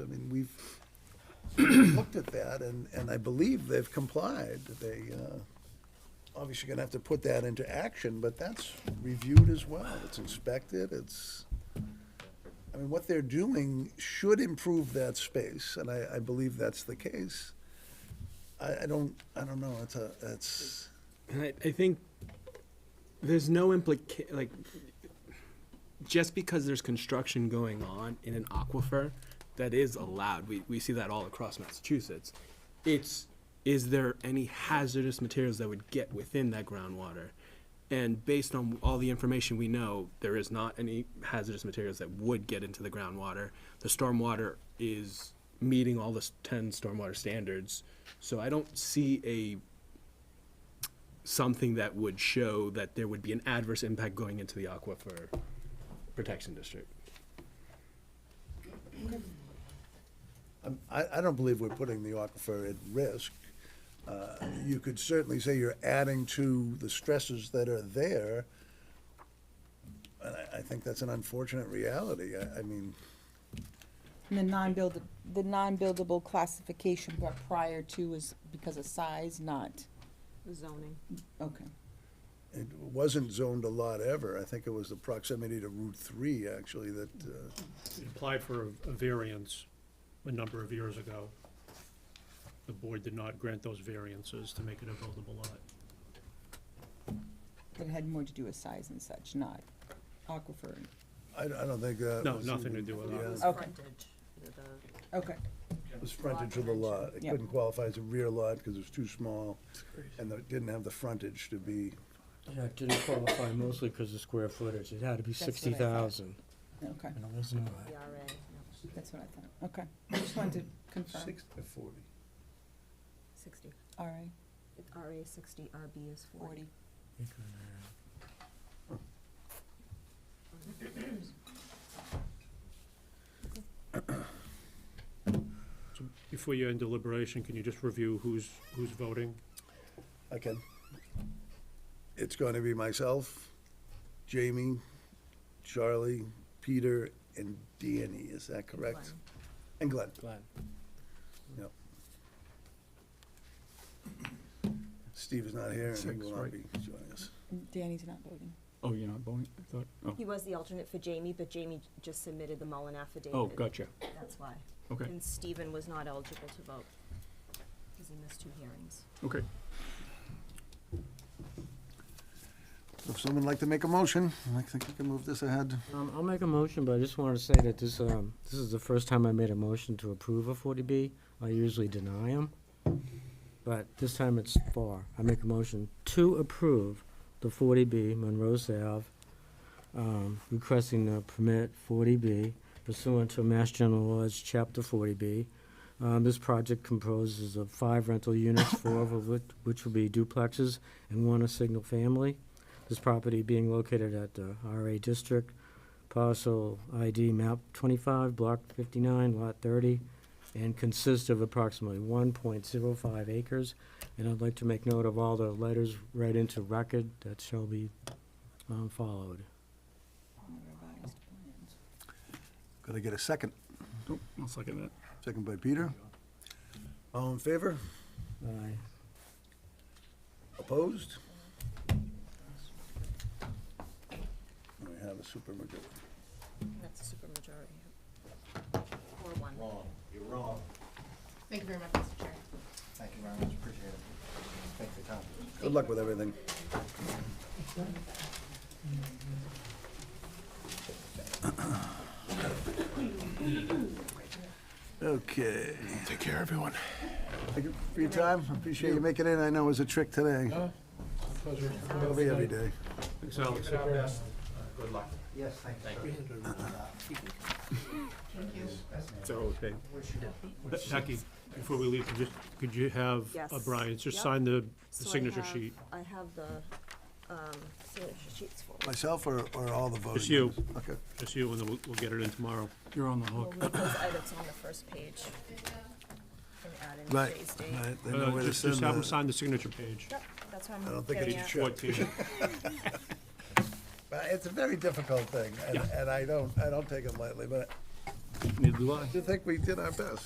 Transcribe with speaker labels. Speaker 1: I mean, we've looked at that, and, and I believe they've complied. They, uh, obviously gonna have to put that into action, but that's reviewed as well. It's inspected, it's, I mean, what they're doing should improve that space, and I, I believe that's the case. I, I don't, I don't know, it's a, it's,
Speaker 2: And I, I think there's no implica, like, just because there's construction going on in an aquifer, that is allowed, we, we see that all across Massachusetts. It's, is there any hazardous materials that would get within that groundwater? And based on all the information we know, there is not any hazardous materials that would get into the groundwater. The stormwater is meeting all the s- ten stormwater standards, so I don't see a something that would show that there would be an adverse impact going into the aquifer protection district.
Speaker 1: I'm- I, I don't believe we're putting the aquifer at risk. Uh, You could certainly say you're adding to the stresses that are there, and I, I think that's an unfortunate reality. I, I mean,
Speaker 3: And the non-build, the non-buildable classification brought prior to is because of size, not,
Speaker 4: zoning.
Speaker 3: okay.
Speaker 1: it wasn't zoned a lot ever. I think it was the proximity to Route Three, actually, that, uh,
Speaker 5: We applied for a- a variance a number of years ago. The board did not grant those variances to make it a buildable lot.
Speaker 3: But it had more to do with size and such, not aquifer.
Speaker 1: I, I don't think that.
Speaker 5: No,
Speaker 1: was
Speaker 5: nothing to
Speaker 1: even-
Speaker 5: do with
Speaker 1: yeah,
Speaker 5: that.
Speaker 3: Okay. Okay,
Speaker 1: It was frontage of the lot. It
Speaker 3: Yeah.
Speaker 1: couldn't qualify as a rear lot because it was too small, and it didn't have the frontage to be.
Speaker 6: Yeah, it didn't qualify mostly because of square footage. It had to be
Speaker 3: what I thought.
Speaker 6: sixty thousand, Mm.
Speaker 3: okay,
Speaker 6: and it was not.
Speaker 4: E
Speaker 3: that's what I thought, okay. I just wanted to confirm.
Speaker 1: to forty.
Speaker 4: Sixty.
Speaker 3: All right,
Speaker 4: RA sixty, RB is
Speaker 3: forty.
Speaker 4: forty.
Speaker 5: So Before you're in deliberation, can you just review who's, who's voting?
Speaker 1: I can. It's going to be myself, Jamie, Charlie, Peter, and Danny, is that correct? And Glenn,
Speaker 2: Glad.
Speaker 1: yep. Steve is not here, and he will not be joining us.
Speaker 3: Danny's not voting.
Speaker 7: Oh, you're not voting? I thought, oh,
Speaker 4: He was the alternate for Jamie, but Jamie just submitted the Mullen affidavit.
Speaker 7: oh, gotcha.
Speaker 4: That's why.
Speaker 7: Okay,
Speaker 4: And Stephen was not eligible to vote, because he missed two hearings.
Speaker 7: okay.
Speaker 1: If someone would like to make a motion, I think we can move this ahead.
Speaker 6: Um, I'll make a motion, but I just wanted to say that this, um, this is the first time I made a motion to approve a forty B. I usually deny them, but this time it's for. I make a motion to approve the forty B Monroe Ave, um, requesting the permit forty B pursuant to Mass General Laws, Chapter forty B. Um, this project composes of five rental units, four of which, which will be duplexes and one a single family. This property being located at the RA District, parcel ID map 25, block 59, lot 30, and consists of approximately 1.05 acres. And I'd like to make note of all the letters read into record that shall be um, followed.
Speaker 3: On the revised plans.
Speaker 1: Could I get a second?
Speaker 7: Oh, I'll second that.
Speaker 1: Second by Peter. All in favor?
Speaker 6: Aye.
Speaker 1: Opposed? We have a supermajority.
Speaker 4: That's a supermajority. Four one.
Speaker 8: Wrong, you're wrong.
Speaker 9: Thank you very much, Mr. Chair.
Speaker 8: Thank you very much, appreciate it. Thank you, Tom.
Speaker 1: Good luck with everything. Okay. Take care, everyone. Thank you for your time. Appreciate you making it. I know it was a trick today. It'll be every day.
Speaker 5: Thanks, Alex.
Speaker 8: Good luck. Yes, thank you.
Speaker 9: Thank you.
Speaker 7: So, okay.
Speaker 5: Be- Becky, before we leave, could you, could you have uh,
Speaker 4: Yes.
Speaker 5: Brian just
Speaker 4: Yep.
Speaker 5: sign the the
Speaker 4: So I
Speaker 5: signature
Speaker 4: have-
Speaker 5: sheet?
Speaker 4: I have the, um, signature sheets for.
Speaker 1: Myself or, or all the voting?
Speaker 5: Just you.
Speaker 1: members? Okay.
Speaker 5: Just you, and then we'll, we'll get it in tomorrow.
Speaker 7: You're on the
Speaker 4: We'll
Speaker 7: hook.
Speaker 4: leave those items on the first page and add in
Speaker 1: Right,
Speaker 4: today's date.
Speaker 1: right. They know
Speaker 5: Uh,
Speaker 1: where to
Speaker 5: Just, just
Speaker 1: send
Speaker 5: have him
Speaker 1: the-
Speaker 5: sign the signature page.
Speaker 4: Yep, that's what
Speaker 1: I
Speaker 4: I'm
Speaker 1: don't think it
Speaker 4: getting
Speaker 1: is
Speaker 4: at.
Speaker 1: short.
Speaker 5: Fourteen.
Speaker 1: Uh, It's a very difficult thing, and, and I don't, I don't take it lightly, but
Speaker 7: Neither do I.
Speaker 1: I think we did our best.